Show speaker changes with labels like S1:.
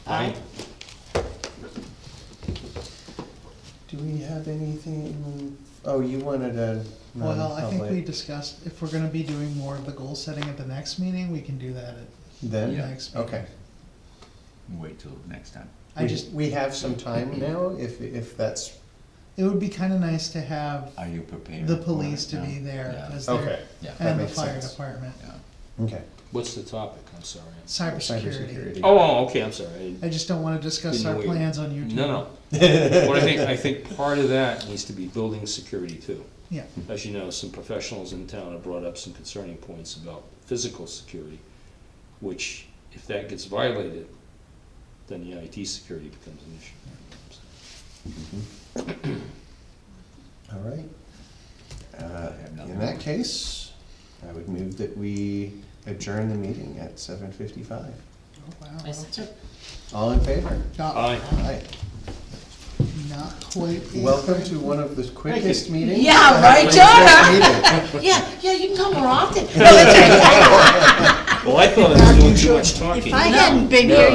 S1: Aye.
S2: Do we have anything, oh, you wanted a
S3: Well, I think we
S2: non-public,
S3: discussed, if we're gonna be doing more of the goal setting at the next meeting, we can do that at the
S2: then,
S3: next meeting.
S2: okay.
S1: Wait till next time.
S3: I
S2: We-
S3: just,
S2: We have some time now, if, if that's,
S3: it would be kinda nice to have
S1: Are you prepared?
S3: the police to be
S1: Yeah.
S3: there
S1: Yeah.
S3: as
S2: okay,
S3: their,
S1: Yeah,
S2: that
S3: and the
S2: makes
S3: fire
S2: sense.
S3: department,
S1: yeah.
S2: okay.
S4: What's the topic? I'm sorry.
S3: cybersecurity.
S2: Cybersecurity.
S4: Oh, oh, okay, I'm sorry. I-
S3: I just don't wanna discuss
S4: Didn't
S3: our
S4: know we-
S3: plans on YouTube.
S4: No, no. What I think, I think part of that needs to be building security too.
S3: Yeah,
S4: As you know, some professionals in town have brought up some concerning points about physical security, which if that gets violated, then the IT security becomes an issue.
S2: All right. Uh,
S1: have nothing.
S2: In that case, I would move that we adjourn the meeting at seven fifty-five.
S3: oh, wow,
S5: I second.
S2: All in favor?
S3: not,
S4: Aye.
S2: Aye.
S3: not quite. the-
S2: Welcome to one of the quickest meetings.
S5: Yeah, right,
S2: John?
S5: Yeah, yeah, you can come more often. No, that's right.
S4: Well, I thought I was doing too much talking.
S5: If I hadn't been here,